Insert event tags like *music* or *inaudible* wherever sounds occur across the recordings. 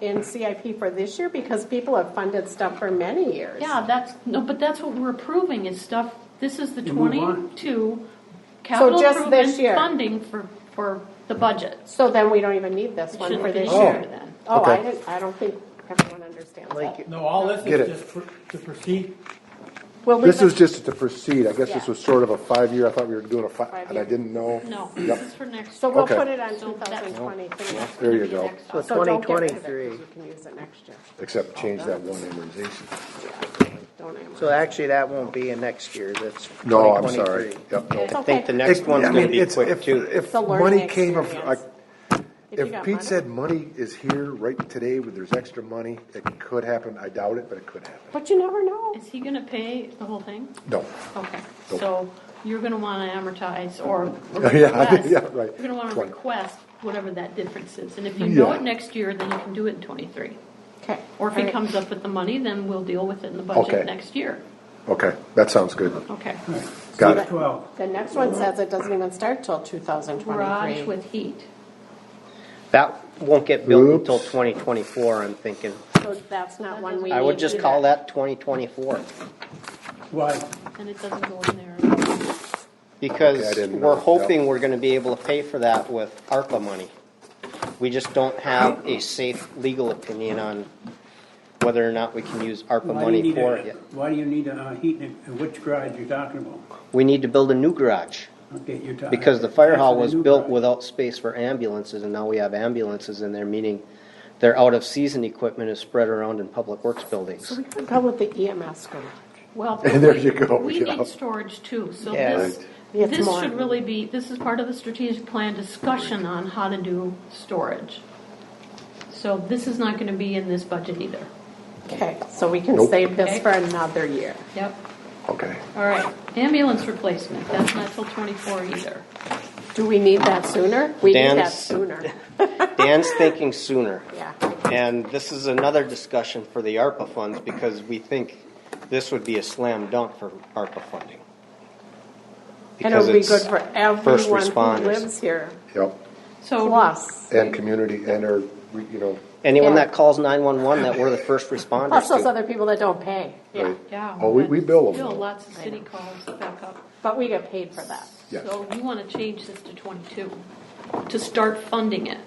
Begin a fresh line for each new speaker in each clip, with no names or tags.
in CIP for this year because people have funded stuff for many years.
Yeah, that's, no, but that's what we're approving is stuff, this is the
You move on.
twenty-two capital
just this year.
improvement funding for, for the budget.
So then we don't even need this
It
one for
shouldn't be
this
here
year.
then.
Oh, I
Okay.
didn't, I don't think everyone understands that.
Like,
No, all this
Get it.
is just for- to proceed.
We'll leave
this
it-
was just to proceed, I guess this
Yeah.
was sort of a five-year, I thought we were doing a five,
Five
and I
year.
didn't know.
No,
Yep.
this is for next.
So we'll
Okay.
put it on
So that's-
2023.
There you go.
next
So
up.
So don't get rid of it,
2023.
'cause You can use it next year.
Except change that one amortization.
Don't I?
So actually, that won't be in next year, that's
No, I'm sorry,
2023.
yep, no.
It's
I think the
okay.
next
It-
one's
I
gonna
mean,
be
it's-
quick
if-
too.
If
The learning
money came, of-
experience.
like,
If you
if
got
Pete
money.
said money is here right today, where there's extra money, it could happen, I doubt it, but it could happen.
But you never know.
Is he gonna pay the whole thing?
No,
Okay,
Nope.
so you're gonna wanna amortize or
*laughs* Yeah,
request.
yeah, right.
You're gonna wanna
Twenty.
request whatever that difference is, and if you know
Yeah.
it next year, then you can do it in twenty-three.
Okay.
Or if
All
he
right.
comes up with the money, then we'll deal with it in the
Okay.
budget next year.
okay, that sounds good,
Okay.
got
So
it.
Twelve.
The next one says it doesn't even start till 2023.
Garage with heat.
That won't get built
Oops.
until twenty twenty-four, I'm thinking.
So that's not one we
I would
need
just
either.
call that twenty twenty-four.
Why?
And it doesn't go in there.
Okay, I
Because
didn't
we're
know.
hoping
Yep.
we're gonna be able to pay for that with ARPA money. We just don't have a safe legal opinion on whether or not we can use ARPA
Why do you
money
need
for it
a,
yet.
why do you need a uh, heat, and and which garage you're talking about?
We need to build a new garage,
Okay, you're talking.
because the fire hall
That's a
was
new
built
garage.
without space for ambulances, and now we have ambulances in there, meaning their out-of-season equipment is spread around in public works buildings.
So we could go with the E EMS garage.
Well.
*laughs* There you go,
We
yeah.
need storage too, so
Yeah.
this,
It's
this
more.
should really be, this is part of the strategic plan discussion on how to do storage. So this is not gonna be in this budget either.
Okay, so we can
Nope.
save this
Okay.
for another year.
Yep.
Okay,
All right, ambulance replacement, that's not till twenty-four either.
Do we need that sooner? We need that
Dan's-
sooner.
*laughs* Dan's thinking sooner.
Yeah.
And this is another discussion for the ARPA funds, because we think this would be a slam dunk for ARPA funding.
And it
Because
would be
it's
good for everyone
responders.
who lives here,
yep,
So.
plus,
and community, and our, you know,
Anyone
Yeah.
that calls nine-one-one that we're the first responders
plus those
to.
other people that don't pay. Yeah,
Right.
Yeah.
Oh, we-
but
we bill them,
Still,
though.
lots of city calls back up.
but we get paid for that.
Yeah.
So you wanna change this to twenty-two, to start funding it.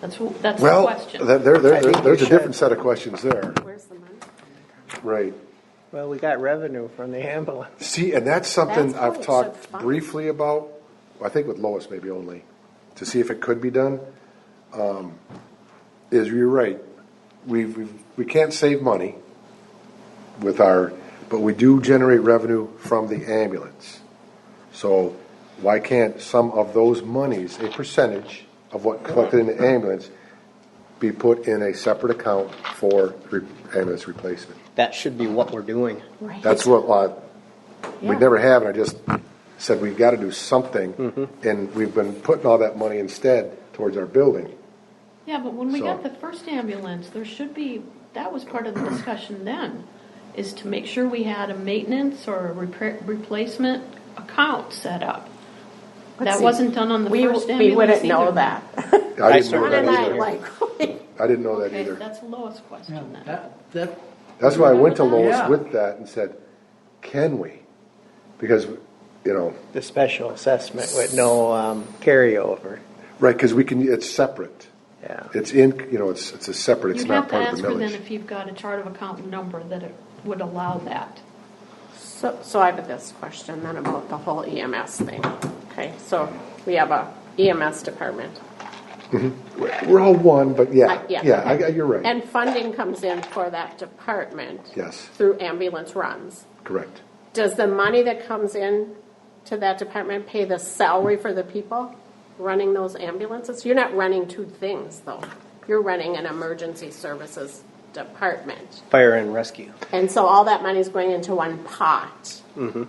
That's, wh- that's the
well,
question.
there, there, there-
I think we
there's a
should.
different set of questions there,
Where's the money?
right.
Well, we got revenue from the ambulance.
See, and that's something
That's
I've
cool, so
talked
fun.
briefly about, I think with Lois maybe only, to see if it could be done. Um, Is you're right, we've, we've- we can't save money with our, but we do generate revenue from the ambulance. So why can't some of those monies, a percentage of what collected in the ambulance, be put in a separate account for re- ambulance replacement?
That should be what we're doing.
That's what, uh, we
Yeah.
never have, and I just said we've gotta do something, and we've been putting all that money instead towards our building.
Yeah, but when we
So-
got the first ambulance, there should be, that was part of the discussion then, is to make sure we had a maintenance or a repair, replacement account set up. That
see.
wasn't done on the
We,
first ambulance
we wouldn't know
either.
that.
I didn't know
certainly
John and I
that either.
either.
like,
I didn't know that
Okay,
either.
that's Lois' question then.
That, that,
That's why I went to Lois
Yeah.
with that and said, can we? Because, you know,
The special assessment with no um, carryover,
right, because we can, it's separate.
yeah.
It's in, you know, it's, it's a separate, it's
You'd
not
have to
part of
ask
the
her then
millage.
if you've got a chart of account number that it would allow that.
*laughs* So, so I have this question then about the whole EMS thing. Okay, so we have a EMS department.
We're- We're all one, but
Uh,
yeah,
yeah,
yeah, I,
okay.
I- you're right,
And funding comes in for that department.
Yes.
Through ambulance runs.
correct.
Does the money that comes in to that department pay the salary for the people running those ambulances? You're not running two things though. You're running an emergency services department.
Fire and rescue.
And so all that money is going into one pot.
Mm-hmm.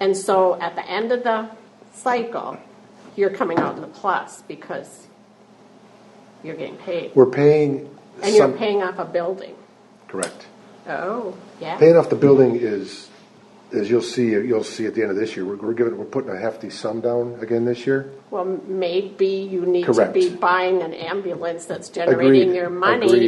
And so at the end of the cycle, you're coming out in the plus because you're getting paid.
We're paying
And you're
some,
paying off a building.
correct.
Oh, yeah.
Paying off the building is, as you'll see, you'll see at the end of this year, we're, we're giving, we're putting a hefty sum down again this year.
Well, maybe you need to
Correct.
be buying an ambulance that's generating
Agreed.
your money
Agreed.